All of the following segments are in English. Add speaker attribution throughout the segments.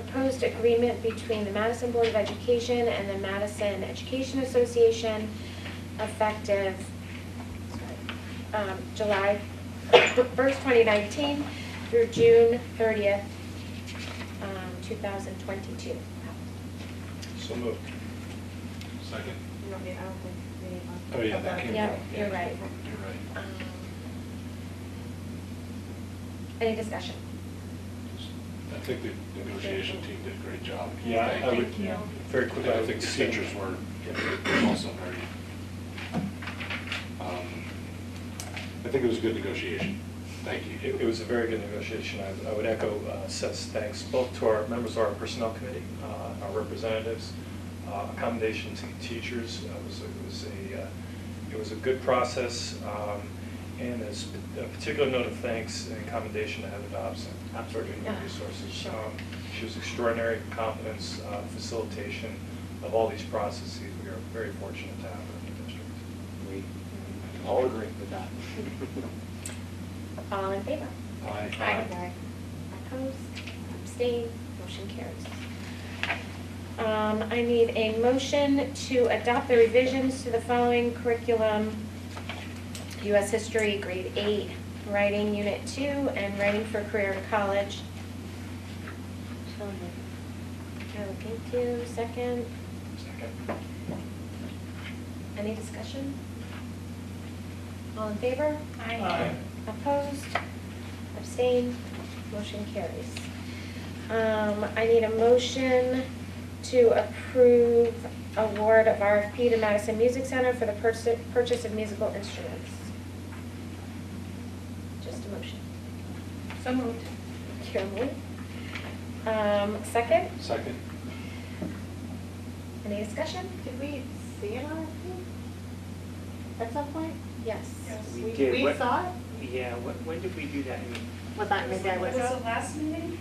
Speaker 1: proposed agreement between the Madison Board of Education and the Madison Education Association effective, sorry, um, July first, twenty nineteen through June thirtieth, um, two thousand twenty-two.
Speaker 2: So moved. Second?
Speaker 3: You don't need, I don't think we need one.
Speaker 2: Oh, yeah, that came
Speaker 1: Yeah,
Speaker 2: from.
Speaker 1: you're right.
Speaker 2: You're right.
Speaker 1: Um, Any discussion?
Speaker 2: I think the negotiation team did a great job.
Speaker 4: Yeah, I- I would,
Speaker 3: Thank you.
Speaker 4: very
Speaker 2: But
Speaker 4: quickly,
Speaker 2: I think the teachers were also very, um, I think it was a good negotiation. Thank you.
Speaker 4: It it was a very good negotiation. I- I would echo uh, Seth's thanks both to our members of our personnel committee, uh, our representatives, uh, accommodation to teachers. It was, it was a, uh, it was a good process. um, And as a particular note of thanks and commendation to Heather Dobson, for human
Speaker 1: Yeah,
Speaker 4: resources.
Speaker 1: sure.
Speaker 4: Um, She was extraordinary competence, uh, facilitation of all these processes. We are very fortunate to have her in the district.
Speaker 5: We all agree with that.
Speaker 1: All in favor?
Speaker 2: Aye.
Speaker 1: Aye.
Speaker 3: Okay.
Speaker 1: Opposed, abstained, motion carries. Um, I need a motion to adopt the revisions to the following curriculum. U.S. History, Grade 8, Writing, Unit 2, and Writing for Career in College.
Speaker 3: So moved.
Speaker 1: Carol, thank you. Second,
Speaker 4: Second.
Speaker 1: any discussion? All in favor?
Speaker 4: Aye.
Speaker 1: Opposed? Abstained? Motion carries. Um, I need a motion to approve award of RFP to Madison Music Center for the purs- purchase of musical instruments. Just a motion.
Speaker 3: So moved.
Speaker 1: Kira moved. Um, second,
Speaker 2: Second?
Speaker 1: any discussion?
Speaker 3: Did we see an RFP at some point?
Speaker 1: Yes.
Speaker 5: We did.
Speaker 3: We
Speaker 5: What-
Speaker 3: saw it?
Speaker 5: Yeah, wh- when did we do that? I mean,
Speaker 3: Was that, maybe I
Speaker 6: Was
Speaker 3: was.
Speaker 6: it last meeting?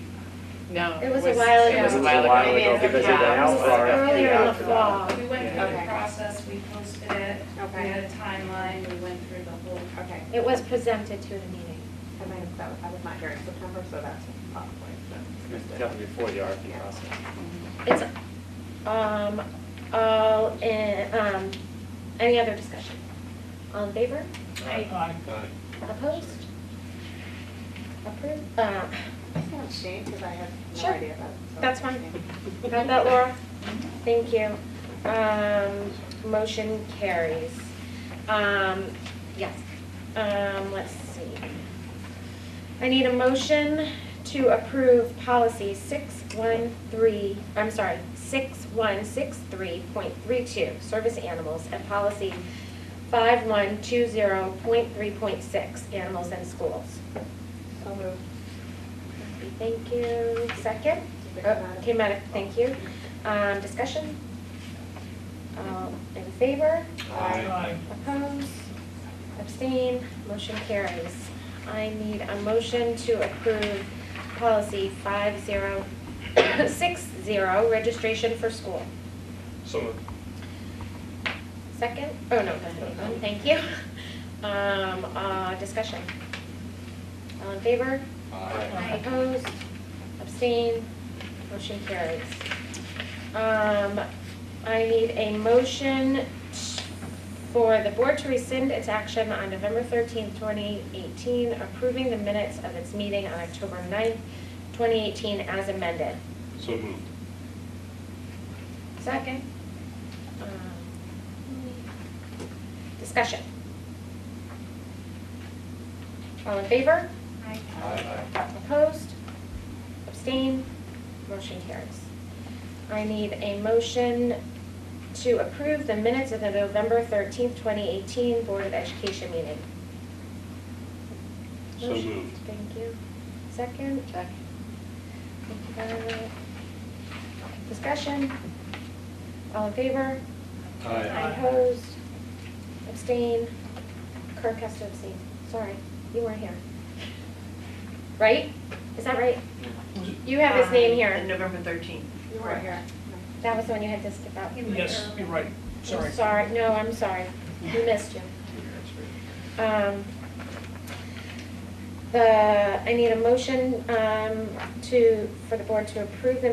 Speaker 7: No.
Speaker 1: It was a while
Speaker 7: It was
Speaker 1: ago.
Speaker 7: a while ago.
Speaker 3: Maybe it was
Speaker 5: because of
Speaker 3: a
Speaker 5: the
Speaker 3: cow.
Speaker 5: health
Speaker 1: This was
Speaker 5: RFP
Speaker 1: earlier in the
Speaker 5: after that.
Speaker 1: fall.
Speaker 6: We went through
Speaker 3: Okay.
Speaker 6: the process, we posted it, we
Speaker 3: Okay.
Speaker 6: had a timeline, we went through the whole.
Speaker 3: Okay.
Speaker 1: It was presented to the meeting.
Speaker 3: I might have, that- I was not here in September, so that's probably.
Speaker 5: It was
Speaker 3: that's-
Speaker 5: Definitely before the RFP process.
Speaker 1: It's, um, all in, um, any other discussion? All in favor?
Speaker 2: Aye.
Speaker 1: Opposed? Approved? Uh,
Speaker 3: I said abstain because I had no
Speaker 1: Sure.
Speaker 3: idea about it. so
Speaker 1: That's fine.
Speaker 3: abstain.
Speaker 1: got that, Laura? Thank you. Um, motion carries. Um, yes, um, let's see. I need a motion to approve policy six one three, I'm sorry, six one six three point three two, service animals, and policy five one two zero point three point six, animals in schools.
Speaker 3: So moved.
Speaker 1: Thank you. Second? Oh,
Speaker 3: Did it come out?
Speaker 1: Okay, Madam, thank you. Um, Discussion? Um, In favor?
Speaker 2: Aye.
Speaker 1: Opposed? Abstain? Motion carries. I need a motion to approve policy 5060, registration for school.
Speaker 4: So moved.
Speaker 1: Second? Oh, no, no, thank you. Um, uh, Discussion? All in favor?
Speaker 2: Aye.
Speaker 1: Opposed, abstained, motion carries. Um, I need a motion for the board to rescind its action on November thirteenth, twenty eighteen, approving the minutes of its meeting on October 9th, twenty eighteen as amended.
Speaker 2: So moved.
Speaker 1: Second. Um, Discussion. All in favor?
Speaker 2: Aye.
Speaker 1: Opposed? Abstained? Motion carries. I need a motion to approve the minutes of the November 13th, 2018 Board of Education meeting.
Speaker 2: So
Speaker 1: Motion.
Speaker 2: moved.
Speaker 1: Thank you. Second?
Speaker 7: Second.
Speaker 1: Thank you, Violet. Discussion? All in favor?
Speaker 2: Aye.
Speaker 1: Opposed? Abstain? Kirk has to abstain. Sorry, you weren't here. Right? Is that right? You have his name here.
Speaker 7: November 13th.
Speaker 3: You weren't here.
Speaker 1: That was the one you had to skip out.
Speaker 6: Yes, you're right.
Speaker 1: I'm Sorry, no, I'm sorry. We missed you. Um, uh, The, I need a motion um, to, for the board to approve the